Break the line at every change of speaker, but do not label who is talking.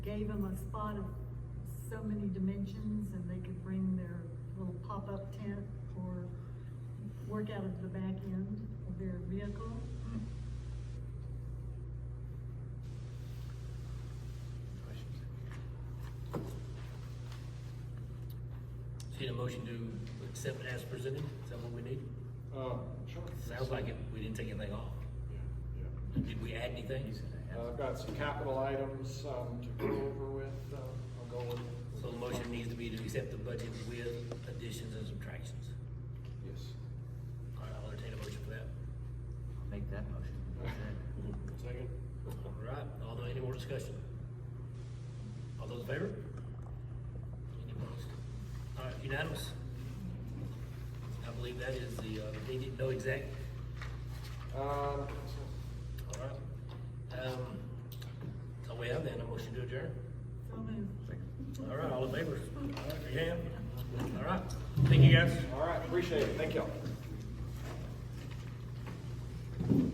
gave them a spot of so many dimensions and they could bring their little pop-up tent or work out of the back end of their vehicle.
Need a motion to accept as presented, is that what we need?
Um, sure.
Sounds like it, we didn't take anything off.
Yeah, yeah.
Did we add anything?
Uh, I've got some capital items, um, to go over with, um, I'll go with.
So the motion needs to be to accept the budget with additions and subtractions.
Yes.
All right, I'll entertain a motion for that.
I'll make that motion.
Second. All right, although any more discussion? All those in favor? Any opposed? All right, unanimous? I believe that is the, uh, they didn't know exact,
Um,
all right. Um, so we have then a motion to adjourn.
So moved.
All right, all in favor? All right, raise your hand. All right, thank you guys.
all right, appreciate it, thank y'all.